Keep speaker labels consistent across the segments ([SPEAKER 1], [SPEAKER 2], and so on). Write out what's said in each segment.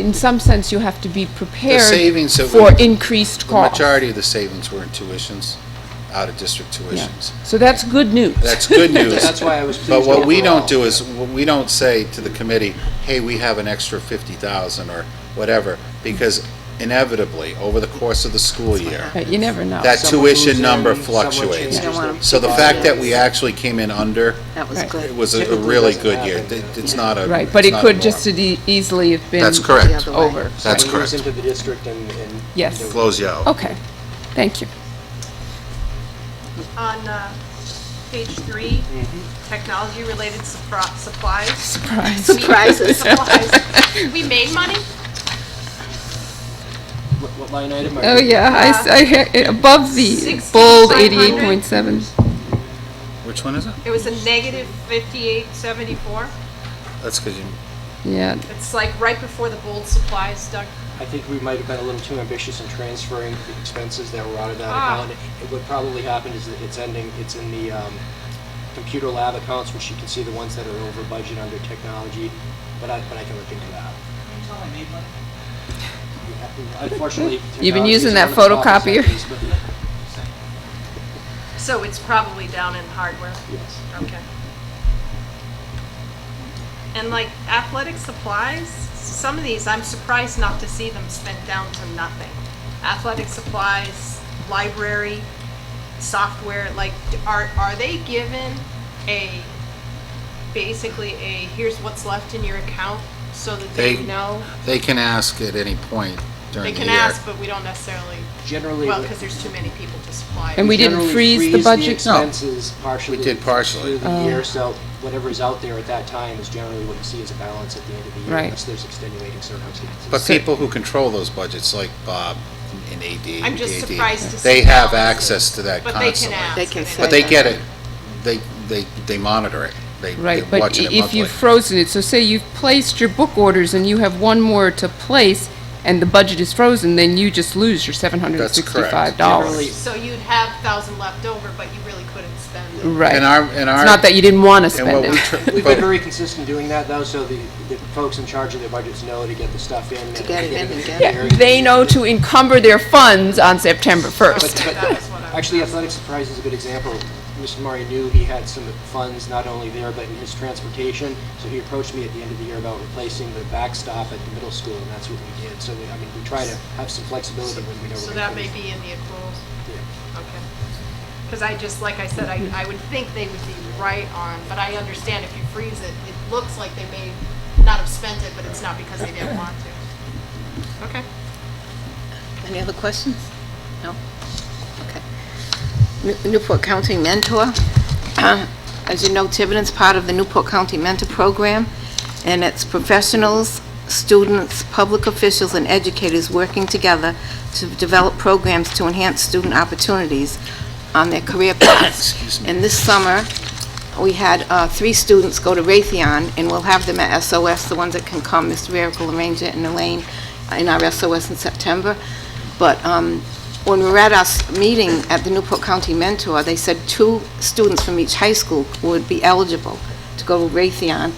[SPEAKER 1] in some sense, you have to be prepared
[SPEAKER 2] savings that
[SPEAKER 1] for
[SPEAKER 2] we-
[SPEAKER 1] increased
[SPEAKER 2] The
[SPEAKER 1] costs.
[SPEAKER 2] majority of the savings were in tuitions, out-of-district
[SPEAKER 1] Yeah.
[SPEAKER 2] tuitions.
[SPEAKER 1] So that's good news.
[SPEAKER 2] That's good news.
[SPEAKER 3] That's why I was
[SPEAKER 2] But
[SPEAKER 3] pleased
[SPEAKER 2] what we don't do
[SPEAKER 3] overall.
[SPEAKER 2] is, we don't say to the committee, hey, we have an extra fifty thousand or whatever, because inevitably, over the course of the school year,
[SPEAKER 1] But you never know.
[SPEAKER 2] that
[SPEAKER 3] uh, Someone moves
[SPEAKER 2] tuition
[SPEAKER 3] in,
[SPEAKER 2] number
[SPEAKER 3] someone changes
[SPEAKER 2] fluctuates.
[SPEAKER 4] You don't
[SPEAKER 3] their-
[SPEAKER 4] want 'em
[SPEAKER 2] So the fact that we actually came in under,
[SPEAKER 4] That was
[SPEAKER 1] Right.
[SPEAKER 2] it
[SPEAKER 4] good.
[SPEAKER 2] was a- a
[SPEAKER 3] Typically
[SPEAKER 2] really
[SPEAKER 3] doesn't
[SPEAKER 2] good year.
[SPEAKER 3] happen,
[SPEAKER 2] It- It's not a.
[SPEAKER 1] Right, but it
[SPEAKER 2] it's not a
[SPEAKER 1] could
[SPEAKER 2] norm.
[SPEAKER 1] just as e- easily have been.
[SPEAKER 2] That's correct.
[SPEAKER 4] The other way.
[SPEAKER 1] Over.
[SPEAKER 2] That's
[SPEAKER 3] Someone moves
[SPEAKER 2] correct.
[SPEAKER 3] into Oh. the district and, and.
[SPEAKER 1] Yes.
[SPEAKER 3] you know,
[SPEAKER 2] Blows you out.
[SPEAKER 1] Okay, thank you.
[SPEAKER 5] On uh, page three, technology-related supri- supplies.
[SPEAKER 1] Surprise.
[SPEAKER 4] Surprises.
[SPEAKER 5] Supplies. We made money?
[SPEAKER 3] What what line item are you?
[SPEAKER 1] Oh, yeah, I s- I, hear- above the bold 88.7.
[SPEAKER 2] Which one is it?
[SPEAKER 5] It was a negative 5874.
[SPEAKER 2] That's because you.
[SPEAKER 1] Yeah,
[SPEAKER 5] It's like right before the bold supplies, Doug.
[SPEAKER 3] I think we might have been a little too ambitious in transferring the expenses that were out of that
[SPEAKER 5] Ah.
[SPEAKER 3] account. And What probably happened is that it's ending, it's in the um, computer lab accounts, which you can see the ones that are over budget under technology, but I, but I can look into that. Unfortunately.
[SPEAKER 1] You've been
[SPEAKER 3] technology
[SPEAKER 1] using
[SPEAKER 3] is
[SPEAKER 1] that
[SPEAKER 3] one of the problems
[SPEAKER 1] photocopier?
[SPEAKER 3] that is, but-
[SPEAKER 5] So it's probably down in hardware.
[SPEAKER 3] Yes.
[SPEAKER 5] Okay. And like athletic supplies, some of these, I'm surprised not to see them spent down to nothing. Athletic supplies, library, software, like, are, are they given a, basically a, here's what's left in your account so that
[SPEAKER 2] They-
[SPEAKER 5] they know?
[SPEAKER 2] They can ask at any point
[SPEAKER 5] They
[SPEAKER 2] during the uh,
[SPEAKER 5] can
[SPEAKER 2] year.
[SPEAKER 5] ask, but we don't necessarily,
[SPEAKER 3] Generally.
[SPEAKER 5] well, because there's too many people to supply.
[SPEAKER 1] And we didn't
[SPEAKER 3] generally
[SPEAKER 1] freeze the budget? Oh.
[SPEAKER 2] No.
[SPEAKER 3] expenses partially.
[SPEAKER 2] We did partially.
[SPEAKER 3] Through the year, so whatever's out there at that time is generally what you see as a balance at the end of the year.
[SPEAKER 1] Right.
[SPEAKER 3] Unless there's extenuating circumstances.
[SPEAKER 2] But people who control those budgets, like Bob and AD.
[SPEAKER 5] I'm just
[SPEAKER 2] AD,
[SPEAKER 5] surprised to see
[SPEAKER 2] They have
[SPEAKER 5] balances.
[SPEAKER 2] access to that
[SPEAKER 5] But they can
[SPEAKER 2] constantly.
[SPEAKER 5] ask.
[SPEAKER 4] They can
[SPEAKER 5] and
[SPEAKER 4] say
[SPEAKER 2] But they get it, they, they, they monitor it, they,
[SPEAKER 1] right,
[SPEAKER 2] they're
[SPEAKER 1] but i-
[SPEAKER 2] watching it
[SPEAKER 1] if
[SPEAKER 2] monthly.
[SPEAKER 1] you've frozen it, so say you've placed your book orders and you have one more to place, and the budget is frozen, then you just lose your $765.
[SPEAKER 3] Generally-
[SPEAKER 5] So you'd have thousand left over, but you really couldn't spend it.
[SPEAKER 1] Right.
[SPEAKER 2] And our, and our.
[SPEAKER 1] It's not that you didn't want to
[SPEAKER 2] and what
[SPEAKER 1] spend it.
[SPEAKER 2] we tr-
[SPEAKER 3] We've
[SPEAKER 2] but-
[SPEAKER 3] been very consistent doing that though, so the, the folks in charge of their budgets know to get the stuff in. and To
[SPEAKER 4] get it in and get
[SPEAKER 3] the
[SPEAKER 4] it.
[SPEAKER 3] year.
[SPEAKER 1] They know to encumber their funds on September
[SPEAKER 3] But,
[SPEAKER 1] 1st.
[SPEAKER 3] but
[SPEAKER 5] That was what I was-
[SPEAKER 3] actually athletic surprise is a good example. Mr. Murray knew he had some funds not only there, but in his transportation. So he approached me at the end of the year about replacing the backstop at the middle school and that's what we did. So we, I mean, we try to have some flexibility when we know.
[SPEAKER 5] So
[SPEAKER 3] we're
[SPEAKER 5] that
[SPEAKER 3] gonna
[SPEAKER 5] may
[SPEAKER 3] finish.
[SPEAKER 5] be in the accruals,
[SPEAKER 3] Yeah.
[SPEAKER 5] okay. Because I just, like I said, I, I would think they would be right on, but I understand if you freeze it, it looks like they may not have spent it, but it's not because they didn't want to. Okay.
[SPEAKER 4] Any other questions? No? Okay. New- Newport County Mentor. Uh, As you know, Tiverton's part of the Newport County Mentor Program, and it's professionals, students, public officials, and educators working together to develop programs to enhance student opportunities on their career paths. And this summer, we had uh, three students go to Raytheon, and we'll have them at SOS, the ones that can come, Mr. Miracle Ranger and Elaine, in our SOS in September. But um, when we were at our s- meeting at the Newport County Mentor, they said two students from each high school would be eligible to go to Raytheon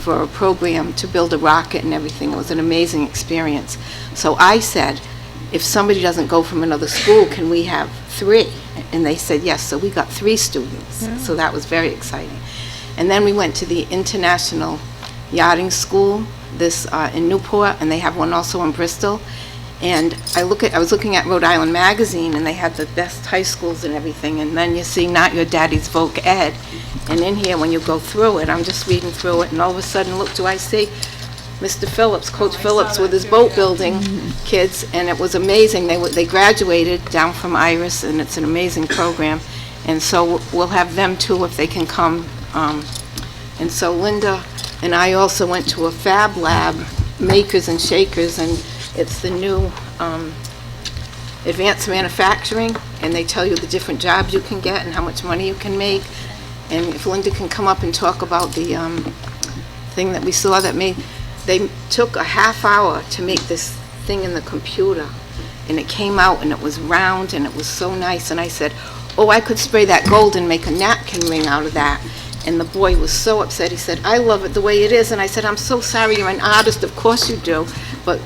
[SPEAKER 4] for a program to build a rocket and everything. It was an amazing experience. So I said, if somebody doesn't go from another school, can we have three? And they said yes, so we got three students. So that was very exciting. And then we went to the International Yachting School, this uh, in Newport, and they have one also in Bristol. And I look at, I was looking at Rhode Island Magazine, and they had the best high schools and everything, and then you see Not Your Daddy's Voc Ed. And in here, when you go through it, I'm just reading through it, and all of a sudden, look, do I see Mr. Phillips, Coach Phillips with his boat building kids, and it was amazing. They, were- they graduated down from Iris, and it's an amazing program. And so we'll have them too if they can come. Um, And so Linda and I also went to a Fab Lab, Makers and Shakers, and it's the new um, advanced manufacturing, and they tell you the different jobs you can get and how much money you can make. And if Linda can come up and talk about the um, thing that we saw that made, they took a half hour to make this thing in the computer, and it came out, and it was round, and it was so nice, and I said, oh, I could spray that gold and make a napkin ring out of that. And the boy was so upset, he said, I love it the way it is, and I said, I'm so sorry, you're an artist, of course you do. but